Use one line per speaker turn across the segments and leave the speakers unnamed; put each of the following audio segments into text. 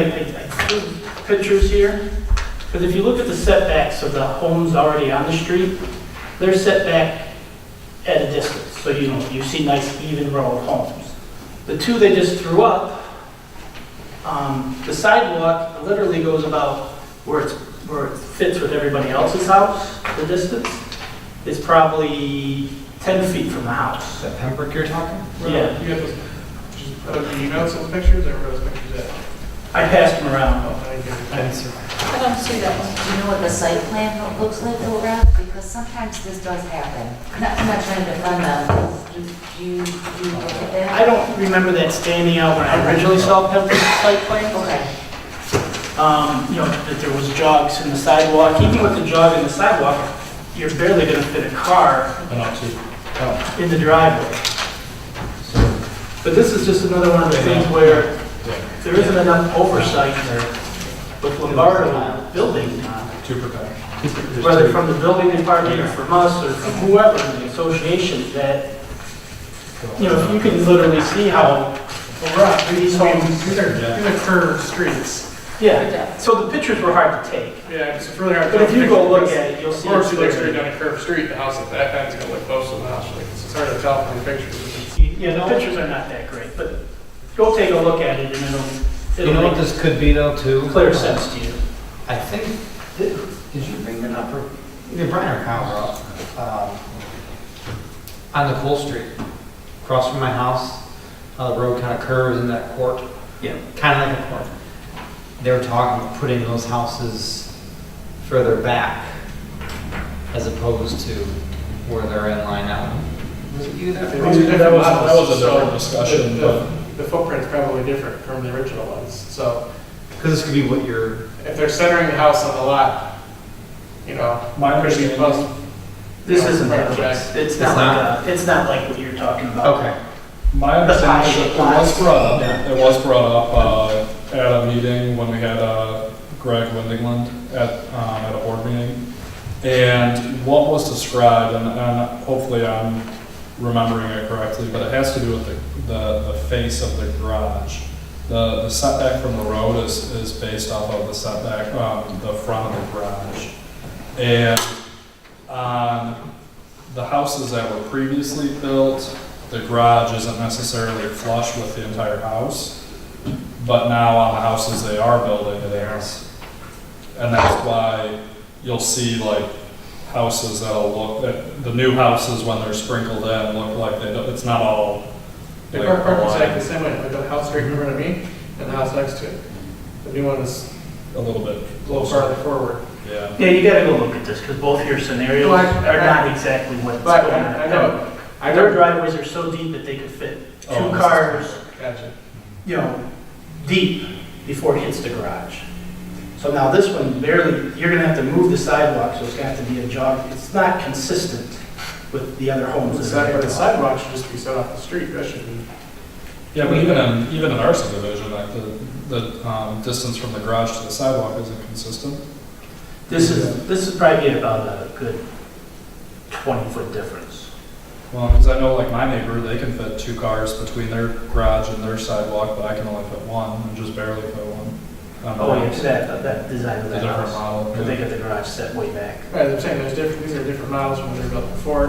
I- I drew pictures here, because if you look at the setbacks of the homes already on the street, they're set back at a distance, so you know, you see nice even row of homes. The two they just threw up, um, the sidewalk literally goes about where it's, where it fits with everybody else's house, the distance, is probably 10 feet from the house.
that Pembroke you're talking?
Yeah.
You got those, just, uh, you emailed some pictures, I wrote those pictures out.
I passed them around,
Oh, I didn't
I
get
didn't
it.
see that.
I don't see that one.
Do you know what the site plan lo- looks like though, Ralph? Because sometimes this does happen. I'm not, I'm not trying to defend them. Do do you, do you look at that?
I don't remember that standing out when I originally saw Pembroke's site plan.
Okay.
Um, you know, that there was jogs in the sidewalk, even with the jog in the sidewalk, you're barely gonna fit a car
And actually, oh,
in the driveway.
so,
But this is just another one of the things where
yeah,
there isn't enough oversight with Lombardo building, uh,
two per pack. There's
whether
two.
from the building department or from us or from whoever in the association, that, you know, you can literally see how,
Well, Rob, these
These homes-
homes, these are, these are curved streets.
yeah. So the pictures were hard to take,
Yeah, it's really hard. to
but if you
tell
go
the
look
difference.
at it, you'll
Of
see.
course, you look
clearly.
straight down a curved street, the house at that end's gonna look close to the house, like, it's hard to tell from the pictures.
Yeah, the pictures are not that great, but go take a look at it and it'll,
You know
it'll
what
make
this could be though, too?
clear sense to you.
I think, did, did you bring that up, or, either Brian or Kyle, um, on the Cole Street, across from my house, how the road kind of curves in that court,
Yeah.
kind of like a court. They were talking about putting those houses further back, as opposed to where they're in line now. Was it you that?
They're
brought it
different
that was- that
models,
was a different
so
discussion,
the- the- The footprint's probably different from the original ones, so
Because this could be what you're,
if they're centering the house on the lot, you know,
My
could be
understanding-
plus.
This isn't that
Right.
case. It's not
not?
like, a- it's not like what you're talking about.
okay,
My understanding is it was brought up,
Yeah.
it was brought up uh, at a meeting when we had uh, Greg Windigland at, um, at a board meeting. And what was described, and- and hopefully I'm remembering it correctly, but it has to do with the, the, the face of the garage. The the setback from the road is, is based off of the setback, um, the front of the garage. And on Um, the houses that were previously built, the garage isn't necessarily flush with the entire house, but now on the houses they are building, it is. And that's why you'll see like houses that'll look, that the new houses when they're sprinkled in look like they, don't- it's not all.
The
like,
car park was
aligned.
like the same way, like the house right in front of me and the house next to it. The new one is
A little bit.
a little farther forward.
Yeah.
Yeah, you gotta go look at this, because both your scenarios
Well, I-
are not exactly what's
But
going on.
I I know, I
Their
know.
driveways are so deep that they could fit
Oh,
two
this is-
cars,
Gotcha.
you know, deep before it hits the garage. So now this one barely, you're gonna have to move the sidewalk, so it's gonna have to be a jog. It's not consistent with the other homes.
The
that are
sidewalk, the
built.
sidewalk should just be set off the street, that should be.
Yeah, but even in, even in our subdivision, like the, the, um, distance from the garage to the sidewalk isn't consistent.
This is, this is probably about a good 20-foot difference.
Well, because I know like my neighbor, they can fit two cars between their garage and their sidewalk, but I can only fit one and just barely fit one. Um,
Oh, yeah, that, that design
The
of that
different
house.
model.
Because they got the garage set way back.
Right, I'm saying there's different, these are different models from when they were built before,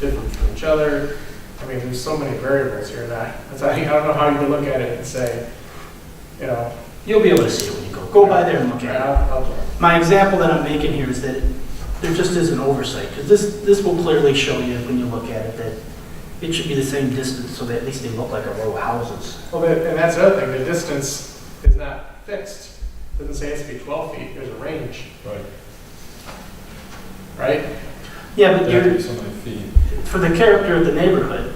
different from each other. I mean, there's so many variables here that, that's, I I don't know how you can look at it and say, you know,
You'll be able to see it when you go, go by there and look
yeah,
at it.
I'll- I'll-
My example that I'm making here is that there just is an oversight, because this, this will clearly show you when you look at it that it should be the same distance, so that at least they look like a row of houses.
Well, but- and that's the other thing, the distance is not fixed. Doesn't say it has to be 12 feet, there's a range,
Right.
right?
Yeah, but
They have to
you're,
be so many feet.
for the character of the neighborhood,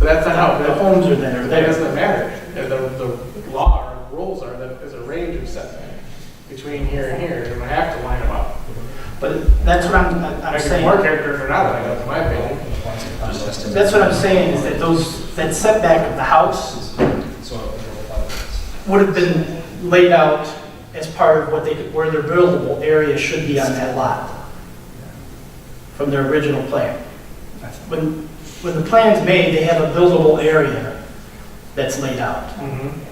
But that's not how,
the
that
homes are that are
that
there.
doesn't matter. The, the- the law or rules are that there's a range of setback between here and here, and I have to line them up.
But that's what I'm, I'm
I
saying.
can more character if they're not lined up, in my opinion.
just estimate.
That's what I'm saying, is that those, that setback of the house
So. uh,
would have been laid out as part of what they, could- where their buildable area should be on that lot from their original plan. When, when the plan's made, they have a buildable area that's laid out.
Mhm.